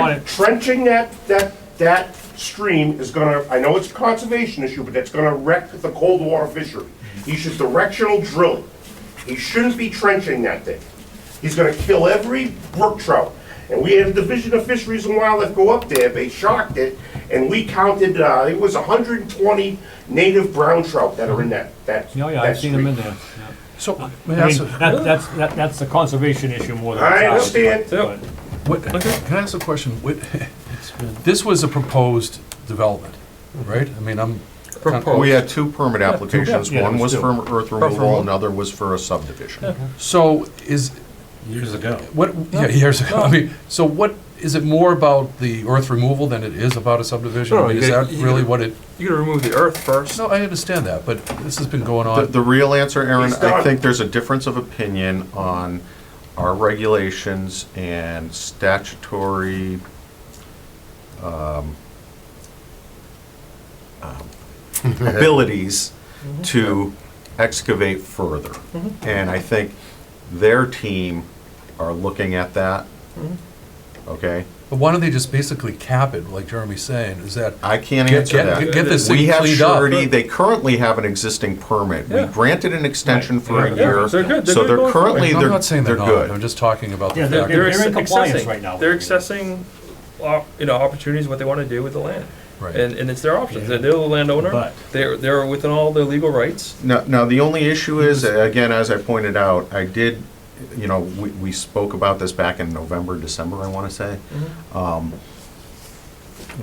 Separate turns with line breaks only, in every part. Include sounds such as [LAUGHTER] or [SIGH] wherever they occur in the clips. But trenching that, that, that stream is gonna, I know it's a conservation issue, but that's gonna wreck the cold water fishery.
Mm-hmm.
He should directional drill it. He shouldn't be trenching that thing. He's gonna kill every brook trout. And we had a Division of Fisheries and Wildlife go up there, they shocked it, and we counted, uh, it was hundred and twenty native brown trout that are in that, that.
Oh, Yeah, yeah, I've
that
seen them in
stream.
there. yeah.
So, may
I
I
mean,
ask, a-
that, that's, that, that's the conservation issue more than.
I
it's ours,
understand.
but- but-
what- can I ask a question? What- This was a proposed development, right? I mean, I'm.
We had two permit applications,
yeah,
one
it was two.
was for earth
removal.
removal, another was for a subdivision.
So is,
Years ago.
what, yeah, here's, I mean, so what, is it more about the earth removal than it is about a subdivision? I
No,
mean,
you
Is
gotta-
that
you
really
gotta-
what it,
You gotta remove the earth first.
no, I understand that, but this has been going
The,
on.
the real answer, Aaron,
He's done.
I think there's a difference of opinion on our regulations and statutory, um, um,
[LAUGHS]
abilities
Mm-hmm.
to excavate further. And I think their team are looking at that,
Mm-hmm.
okay?
But why don't they just basically cap it, like Jeremy's saying, is that,
I can't
Get-
answer
get-
that.
get this
We
thing
have
cleaned up.
surety, they currently have an existing permit. We
Yeah.
granted an extension for a
Yeah,
year.
they're good, they're
So
good
they're
going forward.
currently,
I'm
they're,
not saying
they're
they're not, I'm
good.
just talking about
Yeah,
the
they're-
fact.
they're-
that-
in
acce-
compliance
accessing-
right now.
They're accessing, op- you know, opportunities, what they wanna do with the land.
Right.
And, and it's their options. They're they're the landowner.
But-
They're, they're within all their legal rights.
Now, now, the only issue is, again, as I pointed out, I did, you know, we, we spoke about this back in November, December, I want to say,
Mm-hmm.
um,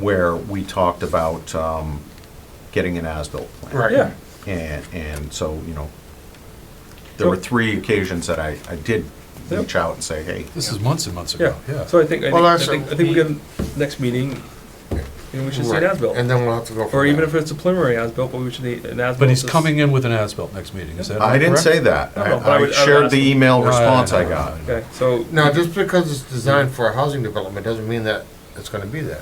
where we talked about um, getting an as-built plan.
Yeah.
And, and so, you know, there were three occasions that I, I did reach out and say, hey,
This is months and months ago,
Yeah,
yeah.
so I think, I think,
Well,
I
that's
think,
a-
I think we get, next meeting, you know, we should see an
Right.
as-built.
And then we'll have to go from
Or even
there.
if it's a preliminary as-built, but we should need an as-built.
But he's
to s-
coming in with an as-built next meeting, is that correct?
I didn't say that.
No, no, but I
I
would- I
I
would
shared
ask
the
them.
email
No, no,
response
no,
I
no,
got.
no, no.
Okay, so,
Now, just because it's designed for a housing development doesn't mean that it's gonna be that.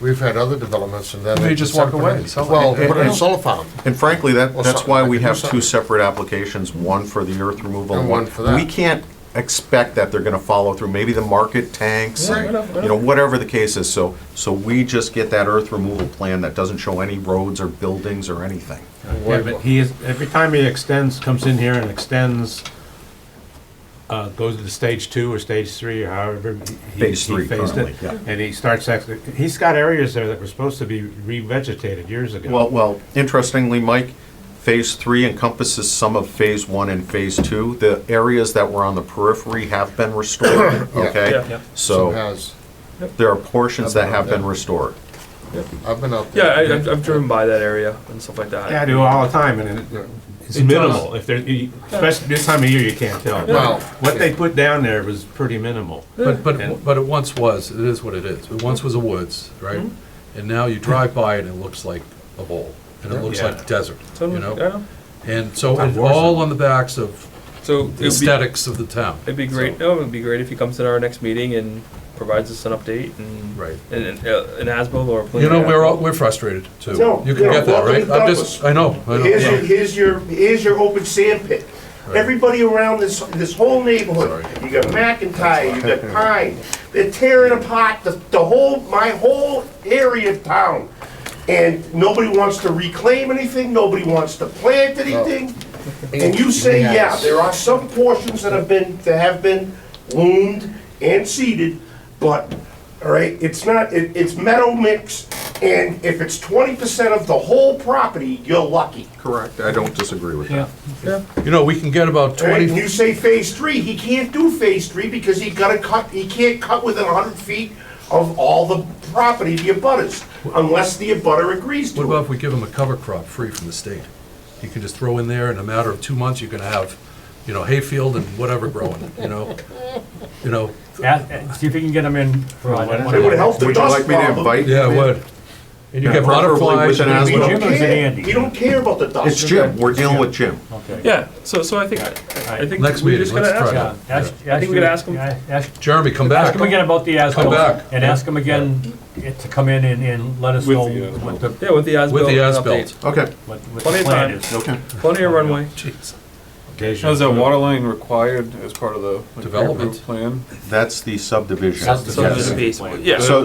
We've had other developments and then.
They just walk
put
away.
in-
It's all-
Well,
it-
put in a
it-
solar farm.
And frankly, that,
Well,
that's
something
why
I
we
could do
have two
something.
separate applications, one for the earth removal.
And one for that.
We can't expect that they're gonna follow through. Maybe the market tanks,
Yeah,
and,
whatever,
you know, whatever the case is. So, so we just get that earth removal plan that doesn't show any roads or buildings or anything.
Yeah, but he is, every time he extends, comes in here and extends, uh, goes to the stage two or stage three or however. he-
Phase
he
three
phased it,
currently, yeah.
And he starts, ex- he's got areas there that were supposed to be revegetated years ago.
Well, well, interestingly, Mike, phase three encompasses some of phase one and phase two. The areas that were on the periphery have been restored,
Yeah.
okay?
Yep.
So
So
has,
there are portions that have been restored.
I've been out
yeah, I,
there.
I've- I've driven by that area and stuff like that.
Yeah, I do all the time, and it- it's minimal, if there, you- especially this time of year, you can't tell.
Well,
What they put down there was pretty minimal.
But,
And-
but, but it once was, it is what it is. It once was a woods, right? And now you drive by it and it looks like a bowl, and it looks
Yeah.
like desert,
So,
you
I
know?
know.
And so,
Not
and
worse.
all on the backs of
So
the
it'd be,
aesthetics of the town.
it'd be great, no, it'd be great if he comes to our next meeting and provides us an update and.
Right.
And, and, uh, an as-built or a
You
preliminary.
know, we're, all
as-built.
we're frustrated too.
No,
You can
no,
get that,
welcome
right?
to
I'm
Douglas.
just, I know, I
Here's your,
know.
here's your, here's your open sand pit. Everybody around this, this whole neighborhood, you got McIntyre, you got Pine, they're tearing apart the, the whole, my whole area of town. And nobody wants to reclaim anything, nobody wants to plant anything. And you say, yeah, there are some portions that have been, that have been loomed and seeded, but, all right, it's not, it, it's meadow mix, and if it's twenty percent of the whole property, you're lucky.
Correct, I don't disagree with
Yeah,
You know, we can get about
All right, and
twenty,
you say phase three, he can't do phase three because he gotta cut, he can't cut within hundred feet of all the property, the abutters, unless the abutter agrees
what
to
about
it.
if we give them a cover crop free from the state? You can just throw in there, in a matter of two months, you're gonna have, you know, hayfield and whatever growing, you know? You know,
Ask- uh, see if you can get them in for like
It
one
It
of
would
the-
help the
Would you
dust
like me to
problem.
invite?
yeah,
you?
it would. And you
Yeah,
get
preferably
butterflies
with an
and
as
He
well.
don't
Jim or is it
care,
Andy?
he don't care about the dust.
It's Jim, we're dealing with Jim.
Okay.
Yeah, so, so I think, I think
Next
we
meeting,
just gotta
let's try
ask.
it.
Yeah, ask-
I think we could ask 'em.
yeah, Ask
Jeremy, come
ask
back.
him again about the as
back.
and ask him again eh, to come in and, and let us
With
know
the, uh,
what the,
Yeah, with the as-built.
With the
an
as-built.
update.
Okay.
what what
Plenty
the
of
plan
time.
is.
Okay.
Plenty of runway.
Jeez.
Occasionally.
Is that water line required as part of the like,
Development.
approved plan?
That's the subdivision.
That's the
So
Yes.
there's a piece.
Plan.
Yeah.
So,